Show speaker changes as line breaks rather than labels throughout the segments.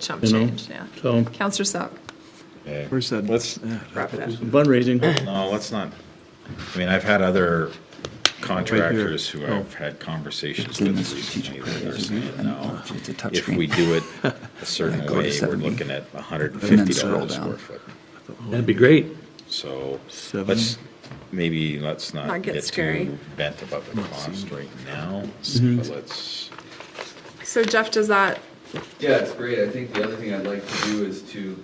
chump
You know?
change, yeah.
So
Counselor Selk,
Okay.
Where's that?
Let's,
wrap it up.
fundraising,
no, let's not, I mean, I've had other contractors who
Oh.
I've had conversations with recently that are saying,
Oh,
no,
Oh,
It's a
if we
touchscreen.
do it a certain
Go to
way, we're
70.
looking at hundred and
And then
fifty
scroll
dollars a square
down.
foot.
that'd be great.
So,
Seven.
let's, maybe, let's
Not
not
get
get
scary.
too bent about the cost right now,
Mm-hmm.
but let's,
So Jeff, does that,
Yeah, it's great. I think the other thing I'd like to do is to,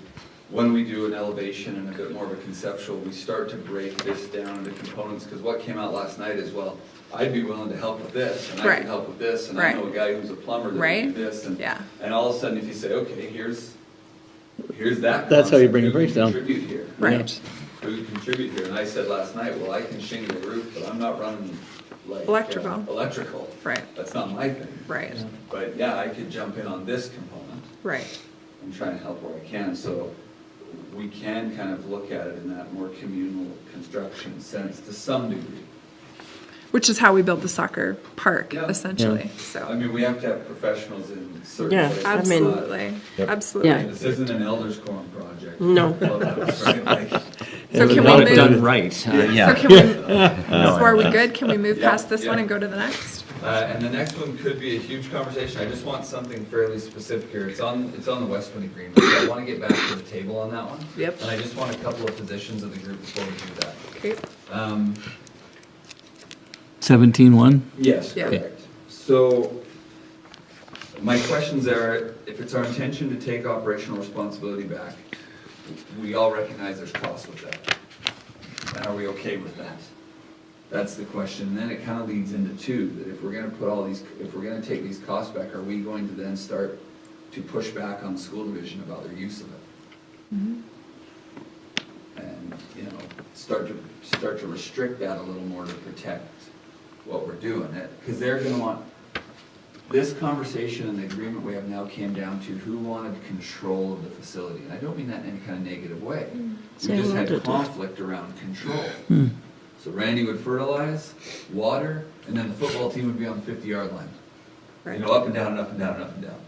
when we do an elevation and a bit more of a conceptual, we start to break this down into components, because what came out last night is, well, I'd be willing to help with this, and I
Right.
can help with this, and I know a
Right.
guy who's a plumber that
Right.
can do this, and,
Yeah.
and all of a sudden, if you say, okay, here's, here's that.
That's how you
concept.
bring a
Who can
breakdown.
Contribute here.
right,
Who can contribute here? And I said last night, well, I can shingle the roof, but I'm not running like. uh,
Electrical.
Electrical.
Right.
That's not my thing.
right,
But yeah, I could jump in on this component
right,
and try and help where I can, so we can kind of look at it in that more communal construction sense to some degree.
which is how we build the soccer park
Yeah.
essentially,
I
so.
mean, we have to have professionals in certain
Yeah,
places.
I mean-
Absolutely,
Yep.
absolutely.
Yeah.
This isn't an elders quorum project.
No.
Clubhouse, right? Like,
So can
Not
we move,
done right, uh,
so
yeah.
can we, so are we good? Can we move
Yeah,
past this one
yeah.
and go to the next?
Uh, and the next one could be a huge conversation, I just want something fairly specific here, it's on, it's on the Westwood agreement, so I wanna get back to the table on that one.
Yep.
And I just want a couple of positions of the group before we do that.
Okay,
Um,
Seventeen one?
Yes,
Yeah.
correct. So my questions are, if it's our intention to take operational responsibility back, we all recognize there's costs with that. And are we okay with that? That's the question. And then it kind of leads into two, that if we're going to put all these, if we're going to take these costs back, are we going to then start to push back on the school division about their use of it? And, you know, start to, start to restrict that a little more to protect what we're doing. Because they're going to want, this conversation and the agreement we have now came down to who wanted control of the facility. And I don't mean that in any kind of negative way. We
Say
just
what
had
it-
conflict around control. So Randy would fertilize, water, and then the football team would be on the fifty yard line. You
Right.
know, up and down and up and down and up and down.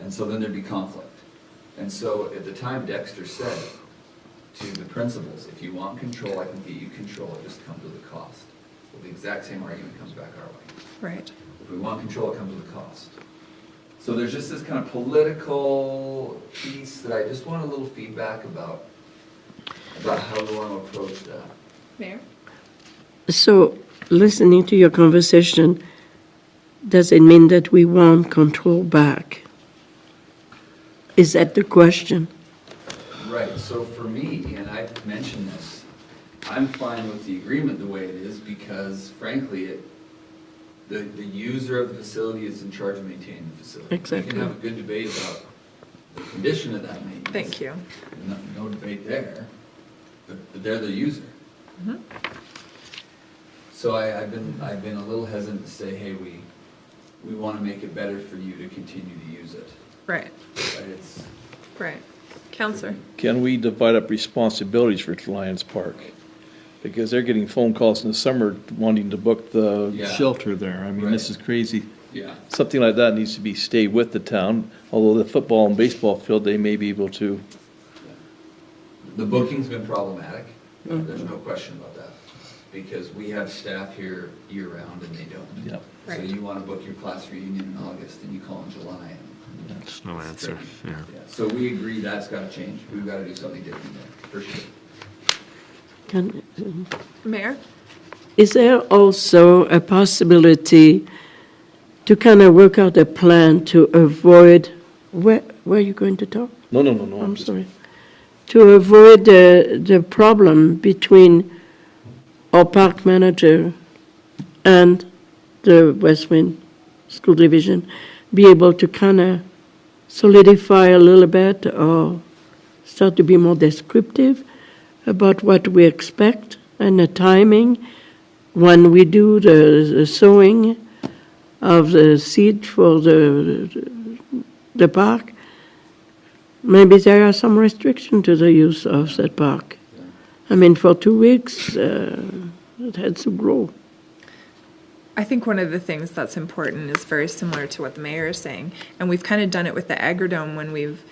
And so then there'd be conflict. And so at the time Dexter said to the principals, if you want control, I can get you control, it just comes with a cost. Well, the exact same argument comes back our way.
right,
If we want control, it comes with a cost. So there's just this kind of political piece that I just want a little feedback about, about how we want to approach that.
Mayor?
So, listening to your conversation, does it mean that we want control back? Is that the question?
Right, so for me, and I've mentioned this, I'm fine with the agreement the way it is because frankly, it, the, the user of the facility is in charge of maintaining the facility. We
Exactly.
can have a good debate about the condition of that maintenance.
Thank you.
No, no debate there, but but they're the user.
Mm-hmm.
So I, I've been, I've been a little hesitant to say, hey, we, we want to make it better for you to continue to use it.
Right,
But it's,
right. Counselor,
Can we divide up responsibilities for Lions Park? Because they're getting phone calls in the summer wanting to book the
Yeah.
shelter there. I mean, this is crazy.
yeah.
Something like that needs to be, stay with the town, although the football and baseball field, they may be able to.
The booking's been problematic, there's no question about that, because we have staff here year-round and they don't.
Yep.
So
Right.
you want to book your class reunion in August and you call in July and. There's no answer, yeah. So we agree that's got to change, we've got to do something different there, for sure.
Can,
Mayor?
is there also a possibility to kind of work out a plan to avoid, where, where are you going to talk?
No, no, no, no.
I'm sorry. To avoid the, the problem between our park manager and the West Wind School Division, be able to kind of solidify a little bit or start to be more descriptive about what we expect and the timing when we do the, the sowing of the seed for the, the park. Maybe there are some restrictions to the use of that park. I mean, for two weeks, uh, it had to grow.
I think one of the things that's important is very similar to what the mayor is saying. And we've kind of done it with the Agrodome when we've